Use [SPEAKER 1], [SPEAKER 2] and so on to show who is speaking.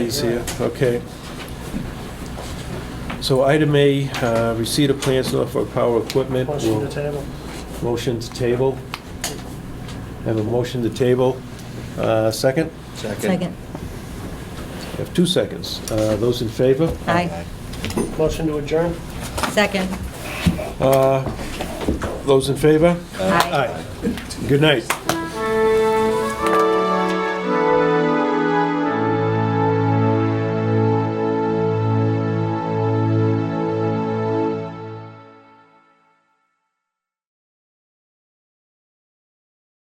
[SPEAKER 1] days here, okay. So item A, uh, receipt of plans not for power equipment.
[SPEAKER 2] Motion to
[SPEAKER 1] We'll-
[SPEAKER 2] table.
[SPEAKER 1] Motion to table. Have a motion to table. Uh, Second?
[SPEAKER 3] Second.
[SPEAKER 1] Have two seconds. Uh, Those in favor?
[SPEAKER 3] Aye.
[SPEAKER 2] Motion to adjourn.
[SPEAKER 3] Second.
[SPEAKER 1] Uh, Those in favor?
[SPEAKER 3] Aye.
[SPEAKER 1] Good night.